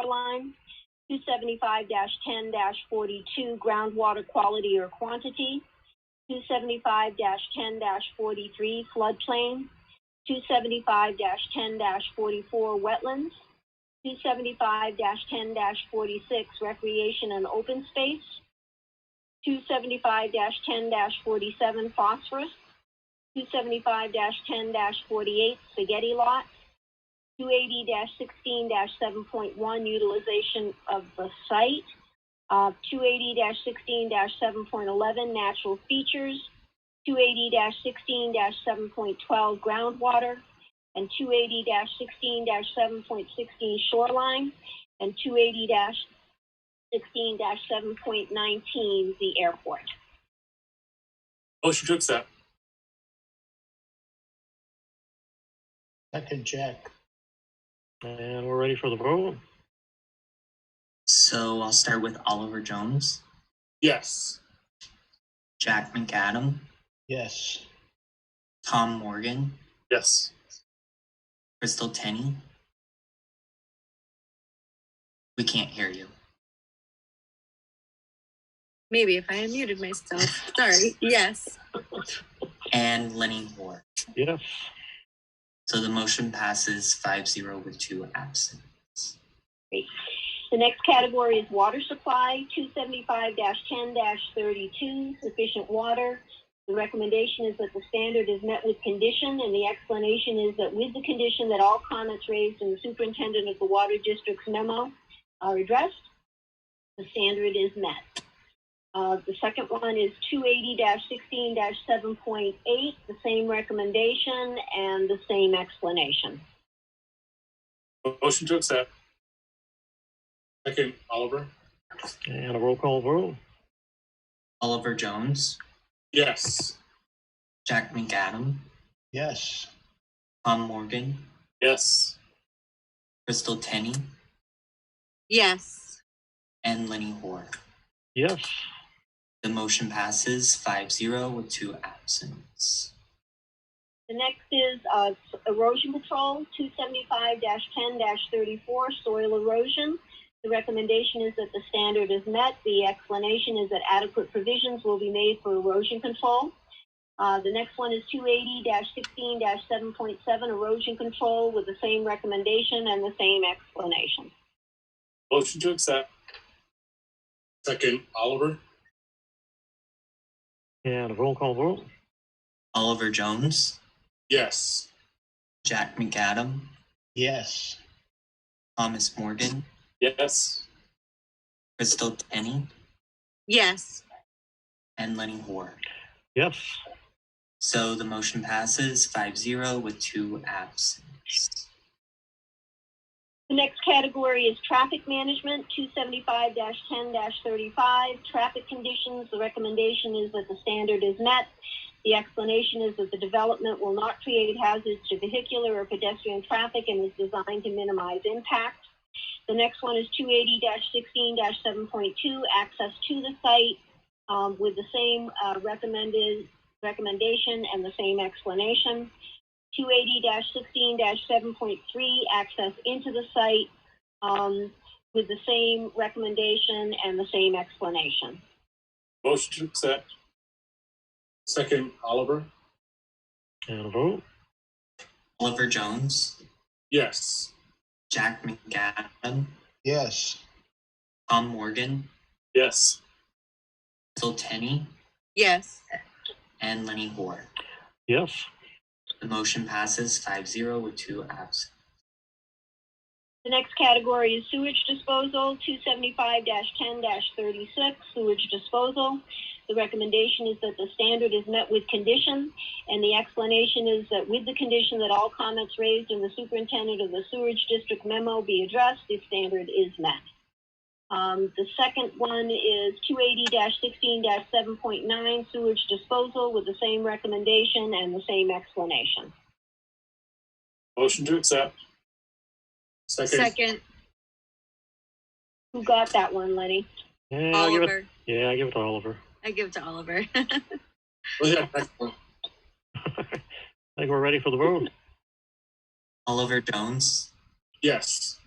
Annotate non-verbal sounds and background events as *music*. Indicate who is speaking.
Speaker 1: shoreline, two seventy-five ten forty-two groundwater quality or quantity, two seventy-five ten forty-three floodplain, two seventy-five ten forty-four wetlands, two seventy-five ten forty-six recreation and open space, two seventy-five ten forty-seven phosphorus, two seventy-five ten forty-eight spaghetti lot, two eighty sixteen seven point one utilization of the site, uh, two eighty sixteen seven point eleven natural features, two eighty sixteen seven point twelve groundwater, and two eighty sixteen seven point sixteen shoreline, and two eighty sixteen seven point nineteen the airport.
Speaker 2: Motion to accept.
Speaker 3: Second, Jack. And we're ready for the vote.
Speaker 4: So I'll start with Oliver Jones,
Speaker 2: Yes.
Speaker 4: Jack McAdam,
Speaker 3: Yes.
Speaker 4: Tom Morgan,
Speaker 2: Yes.
Speaker 4: Crystal Tenney. We can't hear you.
Speaker 5: Maybe if I unmuted myself. Sorry. Yes.
Speaker 4: And Lenny Moore.
Speaker 3: Yes.
Speaker 4: So the motion passes 5 0 with two absent.
Speaker 1: The next category is water supply, two seventy-five ten thirty-two, sufficient water. The recommendation is that the standard is met with condition, and the explanation is that with the condition that all comments raised in the superintendent of the water district's memo are addressed, the standard is met. Uh, the second one is two eighty sixteen seven point eight, the same recommendation and the same explanation.
Speaker 2: Motion to accept. Second, Oliver.
Speaker 3: And a roll call vote.
Speaker 4: Oliver Jones,
Speaker 2: Yes.
Speaker 4: Jack McAdam,
Speaker 3: Yes.
Speaker 4: Tom Morgan,
Speaker 2: Yes.
Speaker 4: Crystal Tenney,
Speaker 5: Yes.
Speaker 4: and Lenny Hoare.
Speaker 3: Yes.
Speaker 4: The motion passes 5 0 with two absents.
Speaker 1: The next is uh, erosion control, two seventy-five ten thirty-four, soil erosion. The recommendation is that the standard is met. The explanation is that adequate provisions will be made for erosion control. Uh, The next one is two eighty sixteen seven point seven, erosion control, with the same recommendation and the same explanation.
Speaker 2: Motion to accept. Second, Oliver.
Speaker 3: And a roll call vote.
Speaker 4: Oliver Jones,
Speaker 2: Yes.
Speaker 4: Jack McAdam,
Speaker 3: Yes.
Speaker 4: Thomas Morgan,
Speaker 2: Yes.
Speaker 4: Crystal Tenney,
Speaker 5: Yes.
Speaker 4: and Lenny Hoare.
Speaker 3: Yes.
Speaker 4: So the motion passes 5 0 with two absent.
Speaker 1: The next category is traffic management, two seventy-five ten thirty-five, traffic conditions. The recommendation is that the standard is met. The explanation is that the development will not create hazards to vehicular or pedestrian traffic and is designed to minimize impact. The next one is two eighty sixteen seven point two, access to the site, um, with the same, uh, recommended, recommendation and the same explanation. 280-16-7.3, access into the site, um, with the same recommendation and the same explanation.
Speaker 2: Motion to accept. Second, Oliver.
Speaker 3: And a vote.
Speaker 4: Oliver Jones,
Speaker 2: Yes.
Speaker 4: Jack McAdam,
Speaker 3: Yes.
Speaker 4: Tom Morgan,
Speaker 2: Yes.
Speaker 4: Phil Tenney,
Speaker 5: Yes.
Speaker 4: and Lenny Hoare.
Speaker 3: Yes.
Speaker 4: The motion passes 5 0 with two absent.
Speaker 1: The next category is sewage disposal, 275-10-36, sewage disposal. The recommendation is that the standard is met with condition, and the explanation is that with the condition that all comments raised in the superintendent of the sewerage district memo be addressed, the standard is met. Um, the second one is two eighty sixteen seven point nine sewage disposal with the same recommendation and the same explanation.
Speaker 2: Motion to accept. Second,
Speaker 5: Second,
Speaker 1: Who got that one, Lenny?
Speaker 3: Yeah, I Uh, give it,
Speaker 5: Oliver.
Speaker 3: yeah, I give it to Oliver.
Speaker 5: I give to Oliver. *laughs*
Speaker 2: Oh, yeah, next one.
Speaker 3: I think we're ready for the vote.
Speaker 4: Oliver Jones,
Speaker 2: Yes.